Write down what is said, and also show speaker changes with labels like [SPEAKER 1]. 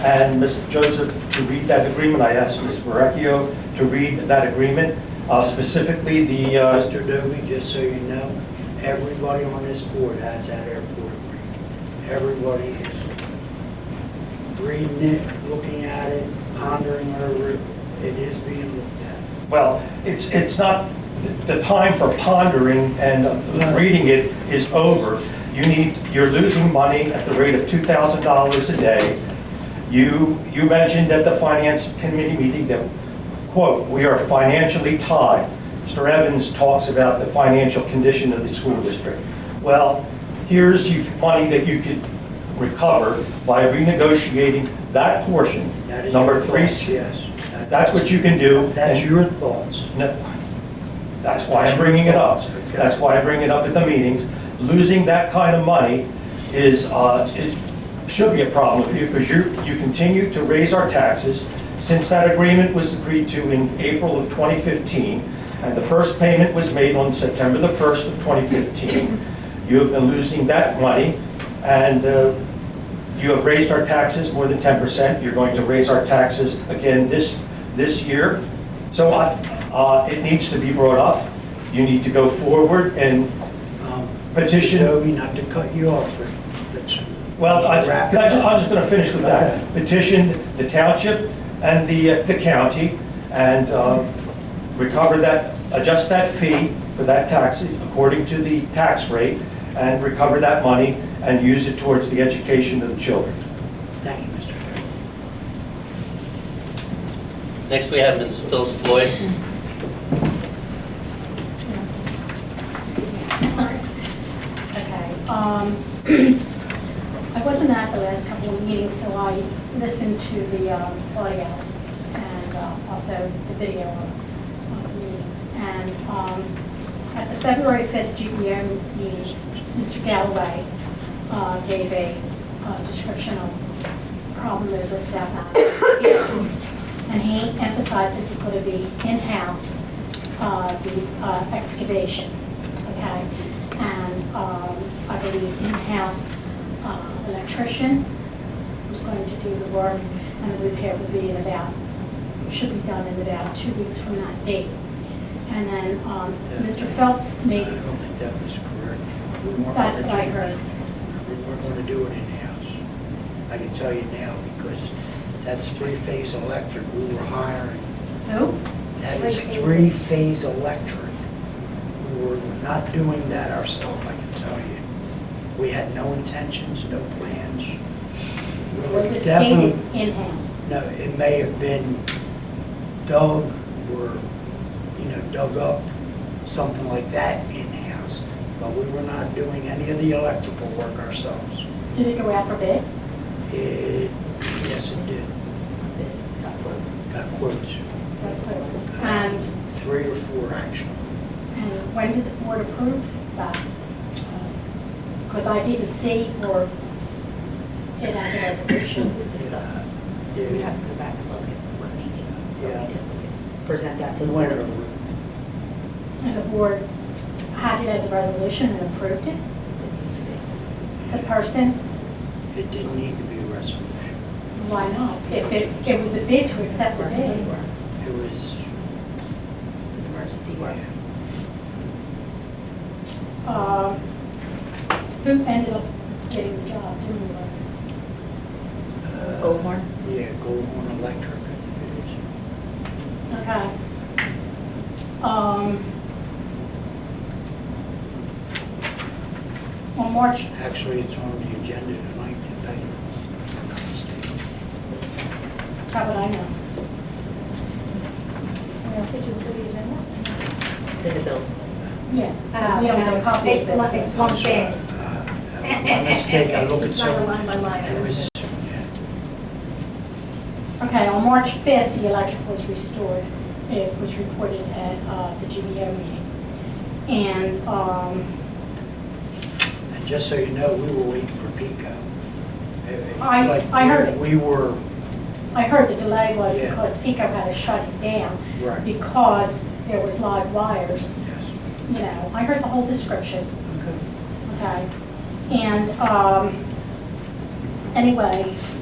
[SPEAKER 1] and Mr. Joseph to read that agreement. I asked Mr. Maracchio to read that agreement, uh, specifically the, uh,
[SPEAKER 2] Mr. Doby, just so you know, everybody on this board has that airport agreement. Everybody is reading it, looking at it, pondering over it. It is being looked at.
[SPEAKER 1] well, it's, it's not, the time for pondering and reading it is over. You need, you're losing money at the rate of $2,000 a day. You, you mentioned at the finance committee meeting that, quote, "We are financially tied." Mr. Evans talks about the financial condition of the school district. Well, here's you- money that you could recover by renegotiating that portion,
[SPEAKER 2] That is
[SPEAKER 1] number
[SPEAKER 2] your
[SPEAKER 1] three.
[SPEAKER 2] thoughts, Yes. That-
[SPEAKER 1] That's what you can do.
[SPEAKER 2] That's
[SPEAKER 1] and-
[SPEAKER 2] your thoughts.
[SPEAKER 1] no, that's why I'm bringing it up. That's why I bring it up at the meetings. Losing that kind of money is, uh, is- should be a problem for you because you, you continue to raise our taxes. Since that agreement was agreed to in April of 2015, and the first payment was made on September the 1st of 2015, you have been losing that money, and uh, you have raised our taxes more than 10%. You're going to raise our taxes again this, this year. So I- uh, it needs to be brought up. You need to go forward and,
[SPEAKER 2] Um,
[SPEAKER 1] Petition-
[SPEAKER 2] Mr. Doby, not to cut you off, but let's.
[SPEAKER 1] well, I-
[SPEAKER 2] wrap
[SPEAKER 1] I'm
[SPEAKER 2] it
[SPEAKER 1] just-
[SPEAKER 2] up.
[SPEAKER 1] I'm just going to finish with
[SPEAKER 2] Okay.
[SPEAKER 1] that. Petition the township and the uh, the county and um, recover that, adjust that fee for that taxes according to the tax rate and recover that money and use it towards the education of the children.
[SPEAKER 2] Thank you, Mr. Doby.
[SPEAKER 3] Next, we have Mrs. Phyllis Floyd.
[SPEAKER 4] Yes. Excuse me, sorry. Okay, um, I wasn't at the last couple of meetings, so I listened to the um, audio and uh, also the video of of the meetings. And um, at the February 5th GPM meeting, Mr. Galloway uh, gave a uh, description of problem over at South Island. uh, And he emphasized that it was going to be in-house, uh, the uh, excavation, okay? And um, I believe in-house uh, electrician was going to do the work, and the repair would be in about, should be done in about two weeks from that date. And then um, Mr. Phelps
[SPEAKER 2] I
[SPEAKER 4] made,
[SPEAKER 2] don't think that was correct. We weren't
[SPEAKER 4] that's
[SPEAKER 2] gonna
[SPEAKER 4] what I
[SPEAKER 2] do-
[SPEAKER 4] heard.
[SPEAKER 2] We weren't going to do it in-house. I can tell you now, because that's three-phase electric we were hiring.
[SPEAKER 4] Who?
[SPEAKER 2] That is
[SPEAKER 5] Three-phase.
[SPEAKER 2] three-phase electric. We were not doing that ourselves, I can tell you. We had no intentions, no plans. We were
[SPEAKER 4] It was
[SPEAKER 2] definitely-
[SPEAKER 4] stated in-house.
[SPEAKER 2] No, it may have been dug or, you know, dug up, something like that in-house. But we were not doing any of the electrical work ourselves.
[SPEAKER 4] Did it go out for bid?
[SPEAKER 2] It, Uh, yes, it did. Got quotes,
[SPEAKER 4] That's what it was. And
[SPEAKER 2] three or four actually.
[SPEAKER 4] And when did the board approve that? Because I didn't see or it as a
[SPEAKER 5] It
[SPEAKER 4] resolution.
[SPEAKER 5] was discussed.
[SPEAKER 2] Yeah.
[SPEAKER 5] We'd have to go back and look at what meeting. what we
[SPEAKER 2] Yeah.
[SPEAKER 5] did. Present that to
[SPEAKER 2] It
[SPEAKER 5] the
[SPEAKER 2] went
[SPEAKER 5] board.
[SPEAKER 2] over.
[SPEAKER 4] And the board had it as a resolution and approved it. The person,
[SPEAKER 2] It didn't need to be a resolution.
[SPEAKER 4] why not? If it, it was a bid to accept the
[SPEAKER 5] Emergency
[SPEAKER 4] bid.
[SPEAKER 5] work.
[SPEAKER 2] It was,
[SPEAKER 5] It was emergency work.
[SPEAKER 4] um, Who ended up getting the job, doing the work?
[SPEAKER 2] uh,
[SPEAKER 5] Goldmore?
[SPEAKER 2] Yeah, Goldmore Electric, I think it is.
[SPEAKER 4] Okay. Um, On March
[SPEAKER 2] Actually, it's on the agenda tonight, to pay the state.
[SPEAKER 4] How would I know?
[SPEAKER 5] To the bills list.
[SPEAKER 4] Yeah, so
[SPEAKER 6] Uh,
[SPEAKER 4] we don't
[SPEAKER 6] no,
[SPEAKER 4] have a
[SPEAKER 6] it's-
[SPEAKER 4] copy of
[SPEAKER 6] it's one-
[SPEAKER 4] this.
[SPEAKER 6] It's one thing.
[SPEAKER 2] Uh, My mistake, I look at
[SPEAKER 6] It's not a
[SPEAKER 2] some,
[SPEAKER 6] line by line.
[SPEAKER 2] it was, yeah.
[SPEAKER 4] Okay, on March 5th, the electric was restored. It was reported at uh, the GBO meeting. And um,
[SPEAKER 2] and just so you know, we were waiting for Pico. It- it-
[SPEAKER 4] I-
[SPEAKER 2] like,
[SPEAKER 4] I heard it.
[SPEAKER 2] We were,
[SPEAKER 4] I heard the delay was
[SPEAKER 2] Yeah.
[SPEAKER 4] because PICO had to shut it down
[SPEAKER 2] Right.
[SPEAKER 4] because there was live wires,
[SPEAKER 2] yes.
[SPEAKER 4] you know. I heard the whole description.
[SPEAKER 2] Okay.
[SPEAKER 4] Okay, and, um, anyway,